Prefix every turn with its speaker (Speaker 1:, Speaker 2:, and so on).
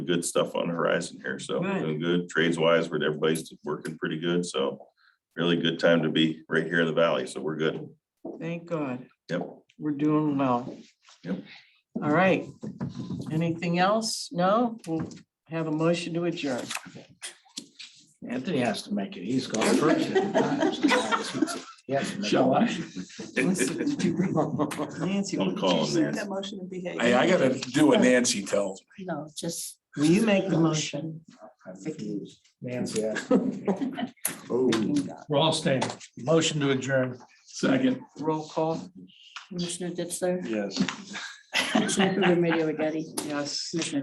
Speaker 1: good stuff on the horizon here, so we're
Speaker 2: Good.
Speaker 1: doing good trades wise, where everybody's working pretty good, so really good time to be right here in the valley, so we're good.
Speaker 2: Thank God.
Speaker 1: Yep.
Speaker 2: We're doing well.
Speaker 1: Yep.
Speaker 2: All right. Anything else? No? We'll have a motion to adjourn.
Speaker 3: Anthony has to make it. He's gone first. He has to make
Speaker 4: Shall I?
Speaker 2: Nancy,
Speaker 1: Don't call him there.
Speaker 5: That motion to behave.
Speaker 4: Hey, I gotta do what Nancy tells. me.
Speaker 6: No, just
Speaker 2: will you make the motion?
Speaker 3: it. Nancy has. to make it.
Speaker 7: We're all staying.
Speaker 3: Motion to adjourn.
Speaker 4: Second.
Speaker 2: Roll call?
Speaker 6: Commissioner Ditzler,
Speaker 4: Yes.
Speaker 6: Commissioner Remedy Agati,
Speaker 2: Yes.
Speaker 6: Commissioner